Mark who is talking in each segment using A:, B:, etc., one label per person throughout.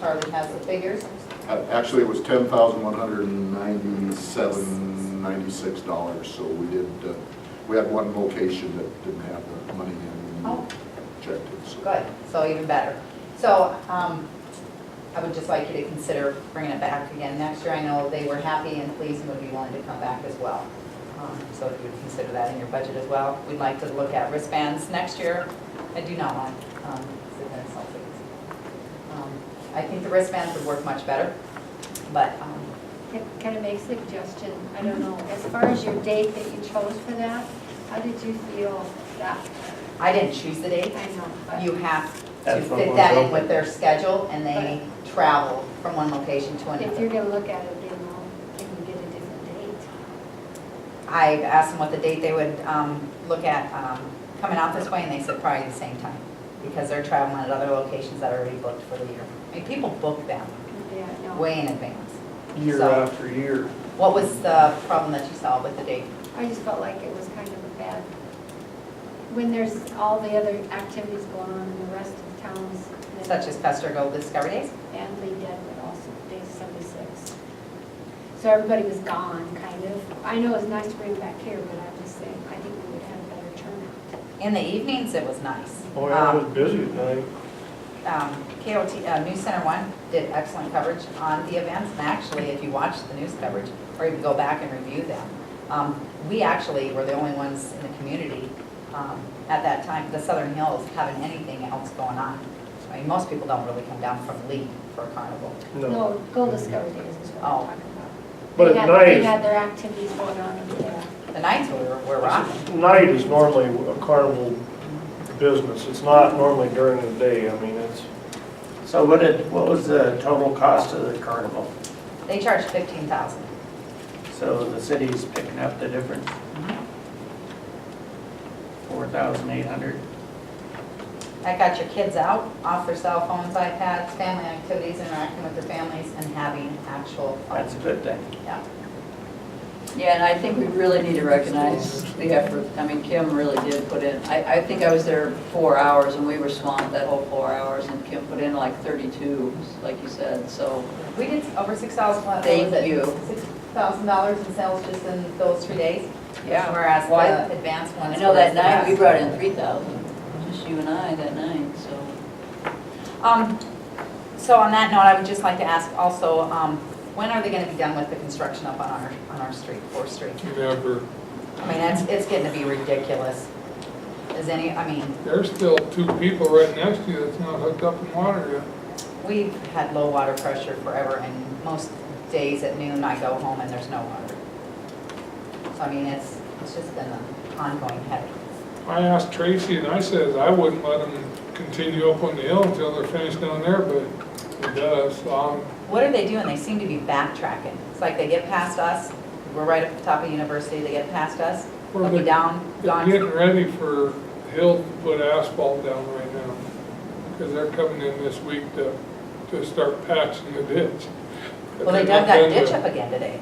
A: Charlie has the figures.
B: A- Uh, Actually, it was ten thousand one hundred and ninety-seven, ninety-six dollars, so we did, uh, we had one location that didn't have the money in, and
A: Oh.
B: we checked it, so.
A: Good, so even better. So um, I would just like you to consider bringing it back again next year. I know they were happy and pleased and would be willing to come back as well. Um, So if you would consider that in your budget as well. We'd like to look at wristbands next year. I do not want um, cigarette selfies. Um, I think the wristbands would work much better, but um,
C: Can can I make a suggestion? I don't know, as far as your date that you chose for that, how did you feel that? uh,
A: I didn't choose the date.
C: I know, but.
A: You have to
D: That's what
A: fit
D: was
A: that in
D: open.
A: with their schedule and they travel from one location to
C: If
A: another.
C: you're gonna look at it, you know, can you get a different date?
A: I asked them what the date they would um, look at um, coming out this way, and they said probably the same time, because they're traveling at other locations that are already booked for the year. I mean, people book them
C: Yeah, I know.
A: way in advance.
D: year
A: So-
D: after year.
A: What was the problem that you saw with the date?
C: I just felt like it was kind of a bad, when there's all the other activities going on in the rest of towns. that-
A: Such as Custer Gold Discovery Days?
C: And Lee Deadwood also, day seventy-six. So everybody was gone, kind of. I know it's nice to bring it back here, but I'm just saying, I think we would have a better turnout.
A: In the evenings, it was nice.
D: Oh, yeah, it
A: Um,
D: was busy at night.
A: um, KOT, uh, News Center One did excellent coverage on the events, and actually, if you watch the news coverage, or even go back and review them, um, we actually were the only ones in the community um, at that time, the Southern Hills, having anything else going on. I mean, most people don't really come down from Lee for a carnival.
C: No, Gold Discovery Days is what
A: Oh.
C: I'm talking about.
D: But
C: They had-
D: at
C: They
D: night-
C: had their activities going on in there.
A: The nights were were rocking.
D: Night is normally a carnival business. It's not normally during the day. I mean, it's,
E: So what did, what was the total cost of the carnival?
A: They charged fifteen thousand.
E: So the city's picking up the difference, four thousand eight hundred.
A: That got your kids out, off their cell phones, iPads, family activities, interacting with their families, and having actual fun.
E: That's a good thing.
A: Yeah.
F: Yeah, and I think we really need to recognize the effort. I mean, Kim really did put in, I, I think I was there four hours and we were swamped that whole four hours and Kim put in like 32, like you said, so.
A: We did over six thousand, what was it?
F: Thank you.
A: Six thousand dollars in sales just in those three days.
F: Yeah.
A: Whereas
F: Why-
A: the advanced ones.
F: I know
A: were
F: that
A: the
F: night, we
A: best.
F: brought in 3,000, just you and I that night, so.
A: Um, so on that note, I would just like to ask also, um, when are they gonna be done with the construction up on our, on our street, Fourth Street?
G: Never.
A: I mean, it's, it's getting to be ridiculous. Is any, I mean,
G: There's still two people right next to you that's not hooked up in water yet.
A: we've had low water pressure forever and most days at noon I go home and there's no water. So I mean, it's, it's just been an ongoing headache.
G: I asked Tracy and I says I wouldn't let them continue up on the hill until they're finished down there, but it does. Um, So I'm-
A: What are they doing? They seem to be backtracking. It's like they get past us, we're right up the top of university, they get past us,
G: Well,
A: they'll be
G: they-
A: down,
G: They're
A: gone.
G: getting ready for Hill to put asphalt down right now. Because they're coming in this week to, to start patching the ditch.
A: Well, they dug that ditch up again today.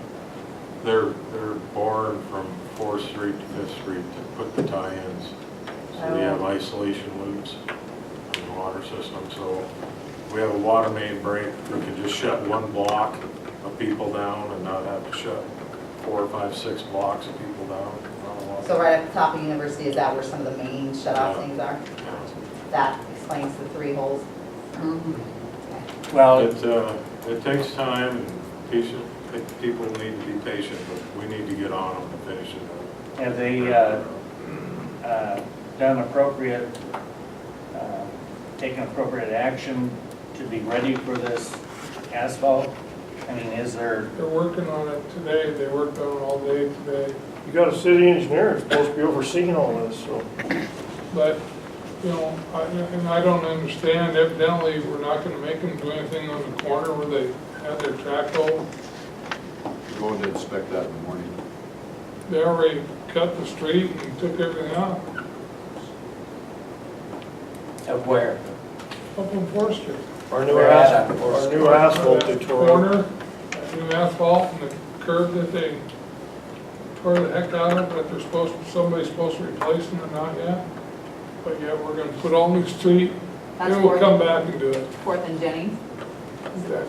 H: They're, they're boring from Fourth Street to Fifth Street to put the tie-ins. So we have
A: Oh.
H: isolation loops in the water system, so we have a water main break. We can just shut one block of people down and not have to shut four, five, six blocks of people down. on a lot.
A: So right at the top of university, is that where some of the main shut-off things are? That explains the three holes. Okay.
E: Well,
H: It, uh, it takes time, and patient, people need to be patient, but we need to get on them and finish it up.
E: have they uh, uh, done appropriate, uh, taken appropriate action to be ready for this asphalt? I mean, is there,
G: They're working on it today. They worked on it all day today.
D: you got a city engineer that's supposed to be overseeing all this, so.
G: But, you know, I, and I don't understand, evidently, we're not gonna make them do anything on the corner where they have their track hole.
B: Going to inspect that in the morning.
G: They already cut the street and took everything out,
E: of where?
G: up on Fourth Street.
D: Our new
E: We're at
D: asphalt,
E: a-
D: our new asphalt they tore up.
G: Corner, new asphalt and the curb that they tore the heck out of, that they're supposed, somebody's supposed to replace them and not yet. But yeah, we're gonna put all new street,
A: That's
G: then we'll
A: for-
G: come back and do it.
A: Fourth and Jennings,
G: that